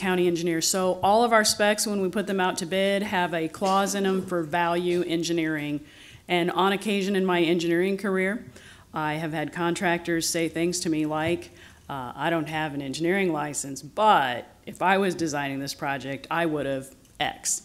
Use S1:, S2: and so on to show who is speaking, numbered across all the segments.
S1: county engineer. So all of our specs, when we put them out to bid, have a clause in them for value engineering. And on occasion in my engineering career, I have had contractors say things to me like, uh, I don't have an engineering license, but if I was designing this project, I would have X.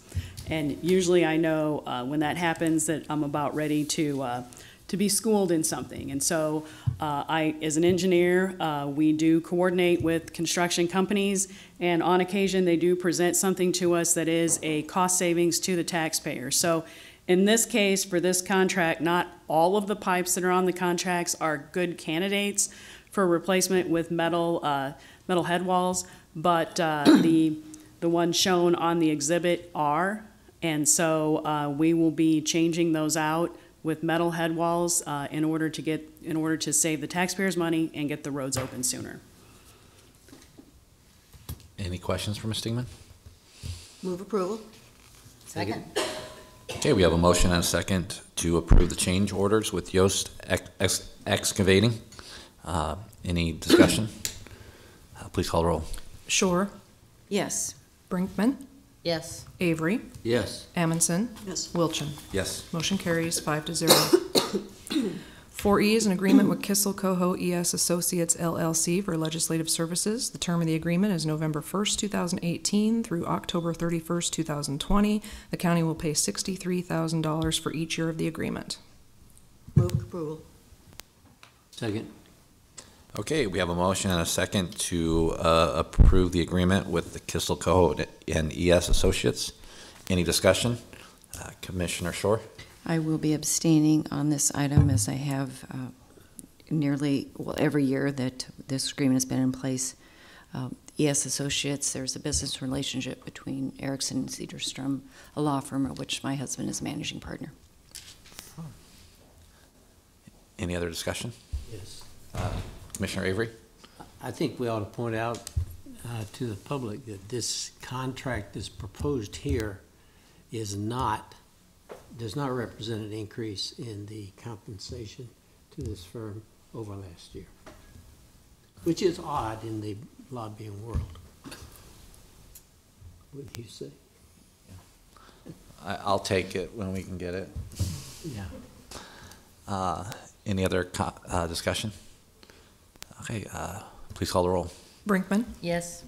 S1: And usually I know uh, when that happens that I'm about ready to, uh, to be schooled in something. And so uh, I, as an engineer, uh, we do coordinate with construction companies, and on occasion, they do present something to us that is a cost savings to the taxpayer. So in this case, for this contract, not all of the pipes that are on the contracts are good candidates for replacement with metal, uh, metal head walls, but uh, the, the ones shown on the exhibit are. And so uh, we will be changing those out with metal head walls uh, in order to get, in order to save the taxpayers' money and get the roads open sooner.
S2: Any questions for Ms. Stingman?
S3: Move approval. Second.
S2: Okay, we have a motion and a second to approve the change orders with Yost Ex- Ex- Excavating. Uh, Any discussion? Uh, Please call the roll.
S4: Shore,
S3: Yes.
S4: Brinkman,
S3: Yes.
S4: Avery,
S2: Yes.
S4: Amundson,
S1: Yes.
S4: Wilchin.
S2: Yes.
S4: Motion carries five to zero. Four E is an agreement with Kissel Coho ES Associates LLC for legislative services. The term of the agreement is November first, two thousand eighteen through October thirty-first, two thousand twenty. The county will pay sixty-three thousand dollars for each year of the agreement.
S3: Move approval.
S5: Second.
S2: Okay, we have a motion and a second to uh, approve the agreement with the Kissel Code and ES Associates. Any discussion? Uh, Commissioner Shore?
S6: I will be abstaining on this item as I have uh, nearly, well, every year that this agreement has been in place. Uh, ES Associates, there's a business relationship between Erickson and Cedarstrom, a law firm of which my husband is managing partner.
S2: Any other discussion?
S5: Yes.
S2: Commissioner Avery?
S5: I think we ought to point out uh, to the public that this contract that's proposed here is not, does not represent an increase in the compensation to this firm over last year, which is odd in the lobbying world. Wouldn't you say?
S2: I- I'll take it when we can get it.
S5: Yeah.
S2: Uh, Any other co- uh, discussion? Okay, uh, please call the roll.
S4: Brinkman,
S3: Yes.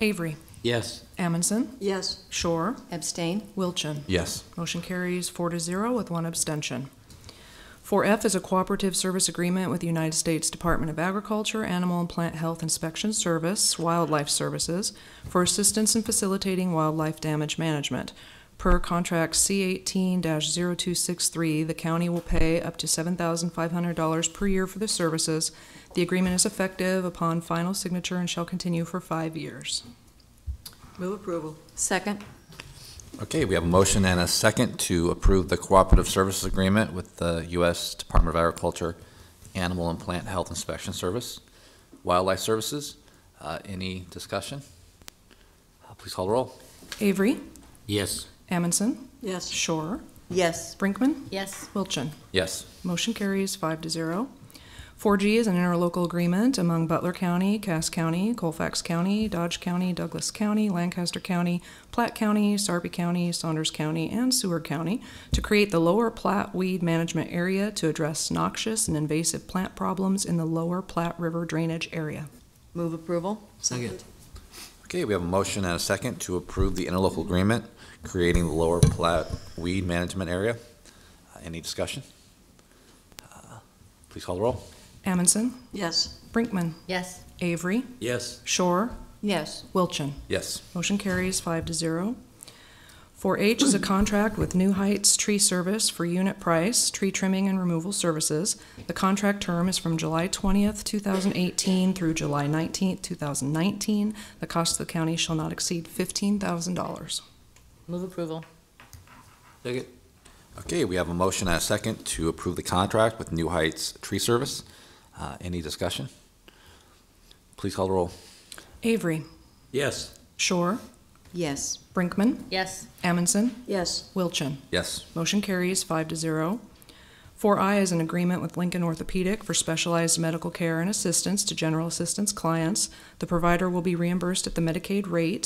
S4: Avery,
S5: Yes.
S4: Amundson,
S3: Yes.
S4: Shore,
S6: Abstain?
S4: Wilchin.
S2: Yes.
S4: Motion carries four to zero with one abstention. Four F is a cooperative service agreement with the United States Department of Agriculture, Animal and Plant Health Inspection Service, Wildlife Services, for assistance in facilitating wildlife damage management. Per contract C eighteen 263 the county will pay up to seven thousand five hundred dollars per year for the services. The agreement is effective upon final signature and shall continue for five years.
S3: Move approval.
S6: Second?
S2: Okay, we have a motion and a second to approve the cooperative services agreement with the U.S. Department of Agriculture Animal and Plant Health Inspection Service, Wildlife Services. Uh, Any discussion? Uh, Please call the roll.
S4: Avery,
S5: Yes.
S4: Amundson,
S3: Yes.
S4: Shore,
S3: Yes.
S4: Brinkman,
S3: Yes.
S4: Wilchin.
S2: Yes.
S4: Motion carries five to zero. Four G is an interlocal agreement among Butler County, Cass County, Colfax County, Dodge County, Douglas County, Lancaster County, Platte County, Sarpy County, Saunders County, and Seward County to create the Lower Platte Weed Management Area to address noxious and invasive plant problems in the Lower Platte River drainage area.
S3: Move approval.
S5: Second.
S2: Okay, we have a motion and a second to approve the interlocal agreement creating the Lower Platte Weed Management Area. Uh, Any discussion? Uh, Please call the roll.
S4: Amundson,
S3: Yes.
S4: Brinkman,
S3: Yes.
S4: Avery,
S5: Yes.
S4: Shore,
S3: Yes.
S4: Wilchin.
S2: Yes.
S4: Motion carries five to zero. Four H is a contract with New Heights Tree Service for unit price, tree trimming and removal services. The contract term is from July twentieth, two thousand eighteen through July nineteenth, two thousand nineteen. The cost of the county shall not exceed fifteen thousand dollars.
S3: Move approval.
S5: Second.
S2: Okay, we have a motion and a second to approve the contract with New Heights Tree Service. Uh, Any discussion? Please call the roll.
S4: Avery,
S5: Yes.
S4: Shore,
S6: Yes.
S4: Brinkman,
S3: Yes.
S4: Amundson,
S3: Yes.
S4: Wilchin.
S2: Yes.
S4: Motion carries five to zero. Four I is an agreement with Lincoln Orthopedic for specialized medical care and assistance to general assistance clients. The provider will be reimbursed at the Medicaid rate.